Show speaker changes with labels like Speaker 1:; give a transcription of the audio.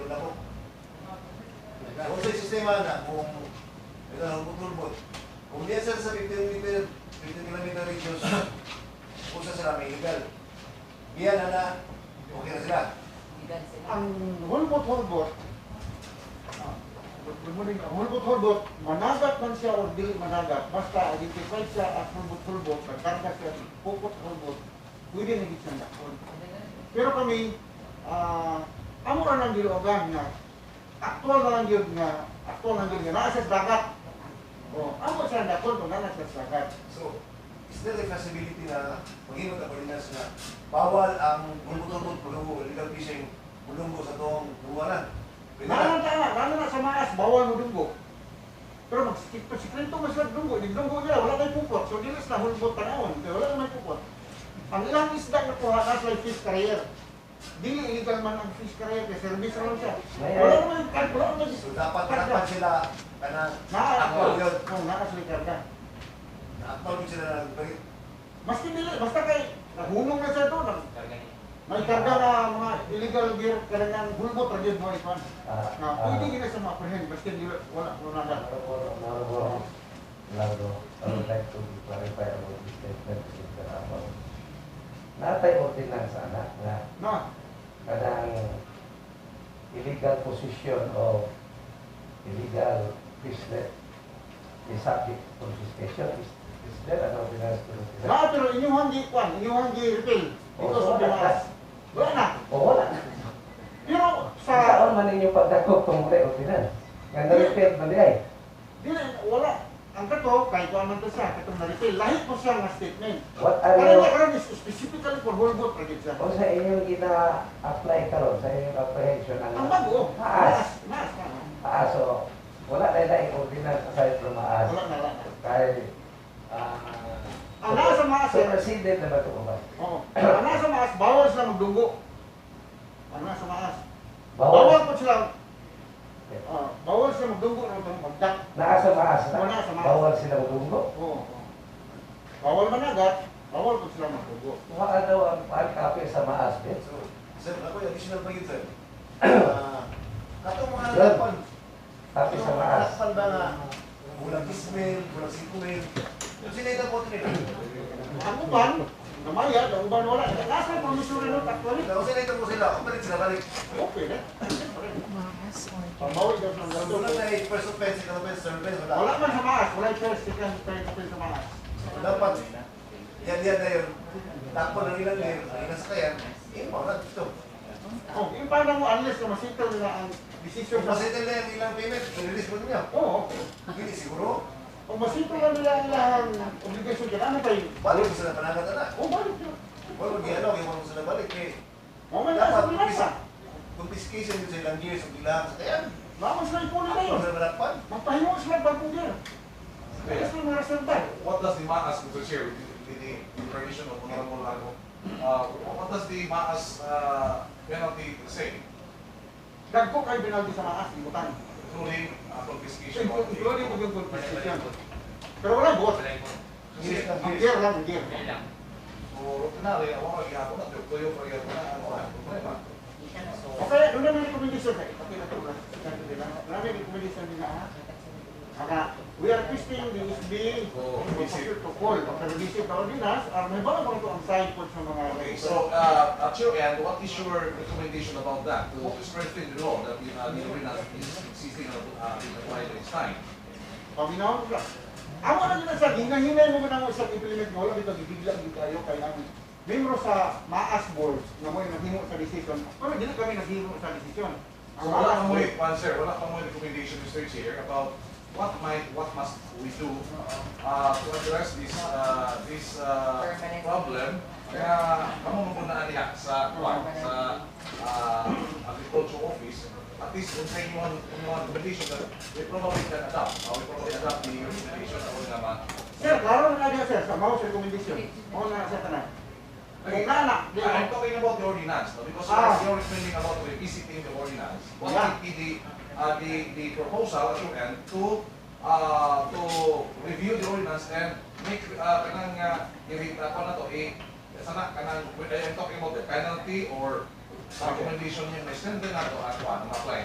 Speaker 1: sistema na kung ito ang turbot. Kung diyan sila sa 15 meter, 15 kilometer radius, usa sila may legal. Diyan na na, okay na sila.
Speaker 2: Legal sila.
Speaker 3: ang hulbot hulbot good morning ang hulbot hulbot managat man siya o dili managat basta identified siya as hulbot hulbot nagkarga siya ng pukot hulbot pwede na gitsang dakon pero kami ah amo ra nang gilogan nga aktual na lang yun nga aktual na lang yun nga naa siya sa dagat o amo siya ang dakon kung naa siya sa dagat
Speaker 1: So, is there a possibility na maghimot ang ordinance na bawal ang bulbot-bulbot, bulungo, illegal fishing, bulungo sa toong buwanan? Pwede na.
Speaker 3: Lalo na tama, lalo na sa maas, bawal mo dunggo. Pero magsikip pa sikrento mo sila dunggo, di dunggo nila, wala tayong pupot. So dilis na hulbot panahon, pero wala naman pupot. Ang ilang isda na kuha ka sa fish carrier. Dili illegal man ang fish carrier, kaya service lang siya. Wala naman yung card, wala naman
Speaker 1: So,
Speaker 3: yung
Speaker 1: dapat dapat sila kanang
Speaker 3: Naa,
Speaker 1: Ako yun.
Speaker 3: kung nakasli karga.
Speaker 1: Nakatawag sila ng bagay.
Speaker 3: Maski nila, basta kay, nahulong na siya doon. nag- May karga na mga illegal gear, kailangan hulbot, rajid mo ito. Na
Speaker 4: Ah.
Speaker 3: pwede nila sa mga prehen, basta nila, wala, wala na.
Speaker 4: I would like to clarify about this statement ni Sir Amon. Natay ordinance anak na
Speaker 3: Na,
Speaker 4: kadang illegal possession of illegal business is subject to confiscation. Is, is there an ordinance to do that?
Speaker 3: Lahat pero inyong hindi kwan, inyong hindi refill. Dito sa
Speaker 4: Oh,
Speaker 3: Pinas. Wala na.
Speaker 4: O wala.
Speaker 3: Pero sa,
Speaker 4: Saan man ninyo pagdakop kung wala ordinance? Nga na-repeat man di ay.
Speaker 3: dili, wala. Ang kato, kahit kung man to siya, katong na-refill. Lahit po siya nga statement.
Speaker 4: What are
Speaker 3: Kaya
Speaker 4: you...
Speaker 3: niya karoon is specifically for whole boat project siya.
Speaker 4: O sa inyong ina-apply karon sa inyong apprehension ang...
Speaker 3: Ang bago,
Speaker 4: Taas.
Speaker 3: maas, maas na.
Speaker 4: Ah, so, wala na na ordinance aside from maas.
Speaker 3: Wala na, wala na.
Speaker 4: Kay, ah,
Speaker 3: Ang nasa maas,
Speaker 4: so
Speaker 3: eh.
Speaker 4: president na ba ito ba?
Speaker 3: Oo. Ang nasa maas, bawal sila magdunggo. Ang nasa maas.
Speaker 4: Bawal.
Speaker 3: Bawal po sila, ah, bawal sila magdunggo ng itong magdak.
Speaker 4: Naa sa maas na.
Speaker 3: Wala sa maas.
Speaker 4: Bawal sila magunggo.
Speaker 3: Oo. oo. Bawal managat, bawal po sila magdunggo.
Speaker 4: Wala daw ang pagkape sa maas, eh. Ben.
Speaker 1: So, sir, ako yung ya? additional bagay, sir. Ah, Katong mga
Speaker 4: Sir,
Speaker 1: lakpan,
Speaker 4: Kape sa maas.
Speaker 1: Lakpan ba nga? Bulang ismail, bulang sikuil. Yung sinita po ito nila.
Speaker 3: Ang uban, namaya, ang uban wala. Nasa promissory note actually.
Speaker 1: Kung sinita po sila, kung balik sila, balik.
Speaker 3: Okay na.
Speaker 2: Mas, or...
Speaker 3: Pamawi daw ng
Speaker 1: Ang
Speaker 3: ganito.
Speaker 1: tulad na eh, first offense, second offense, third offense,
Speaker 3: Wala
Speaker 1: wala.
Speaker 3: man sa maas, wala yung first, second, third, fourth sa maas.
Speaker 1: Dapat, Ya, yan yan na yun. Takpo ng ilan ngayon, ang ilan sa kayan. Eh, wala dito.
Speaker 3: Oh, yung paano mo unless na masito nila ang decision
Speaker 1: Kung
Speaker 3: sa...
Speaker 1: masitin na yung ilang payment, i-release mo niya.
Speaker 3: Oo.
Speaker 1: Hindi siguro,
Speaker 3: Kung masito na nila ang ilang obligasyon dyan, ano tayo?
Speaker 1: balik mo sila panangat na.
Speaker 3: kan Oh, balik yun.
Speaker 1: Wala mo gihalaw, yung mo sila balik. Eh,
Speaker 3: Mamaya na sa
Speaker 1: dapat,
Speaker 3: pinasa.
Speaker 1: confiscation yun sa ilang years, ang ilang sa kayan.
Speaker 3: Laman sila ipunin na
Speaker 1: Ano
Speaker 3: yun.
Speaker 1: na malakpan?
Speaker 3: Magpahingo sila bagong dyan.
Speaker 5: Iya.
Speaker 3: Kaya sila mga reserva.
Speaker 5: What does the MAAS, Mr. Chair, with the, with the permission of Honorable Lago, uh, what does the MAAS uh, penalty say,
Speaker 3: Dagko kayo binaldi sa maas, ibutan.
Speaker 5: including uh, confiscation? of the-
Speaker 3: Including mo yung confiscation. Pero wala bot.
Speaker 5: Kasi,
Speaker 3: Ang gear lang, ang gear.
Speaker 5: o, kunwari, ako nga gihapon na, tuyo pa gihapon na, ano ka, problema.
Speaker 3: O kaya, doon namin recommendation kayo. Pati na ah. tulad. Doon namin recommendation nila, ha? Maka, we are requesting the SBA to
Speaker 5: Oo, Oh, visit.
Speaker 3: consider to call after visit ng ordinance or may bago po ito ang side po sa mga
Speaker 5: Okay, so, uh, at your end, what is your recommendation about that, to strengthen the law that the, uh, the ordinance is existing and, uh, being applied at this time?
Speaker 3: Paminaw ko lang. Ang wala nila sa hinahingay mo ba ng isang implement mo, wala dito, bibigla dito tayo kay namin. Membro sa MAAS board na mo yung naghimo sa decision. Pero hindi kami naghimo sa decision. Ang
Speaker 5: So
Speaker 3: MAAS
Speaker 5: wala kang
Speaker 3: board,
Speaker 5: may, one sir, wala kang may recommendation, Mr. Chair, about what might, what must we do uh, to address this, uh, this uh,
Speaker 2: Permanent.
Speaker 5: problem. ya, Kaya kamo muna niya sa kwan, sa uh, agriculture office. At least kung sa inyong inyong recommendation that we probably can adapt, uh, we probably adapt the recommendation of the naman.
Speaker 3: Sir, klaro na nga sir, sa MAAS recommendation. Mao na sa tanan. Kung na na, di
Speaker 5: Iya, I'm talking about the ordinance, no? because
Speaker 3: Ah.
Speaker 5: you're recommending about revisiting the ordinance. What
Speaker 3: Yeah.
Speaker 5: would be the, uh, the, the proposal at your end to, uh, to review the ordinance and make, uh, kanang, uh, i- uh, ano to, eh, sana, kanang, I'm talking about the penalty or recommendation niya, may send na to, at one, apply.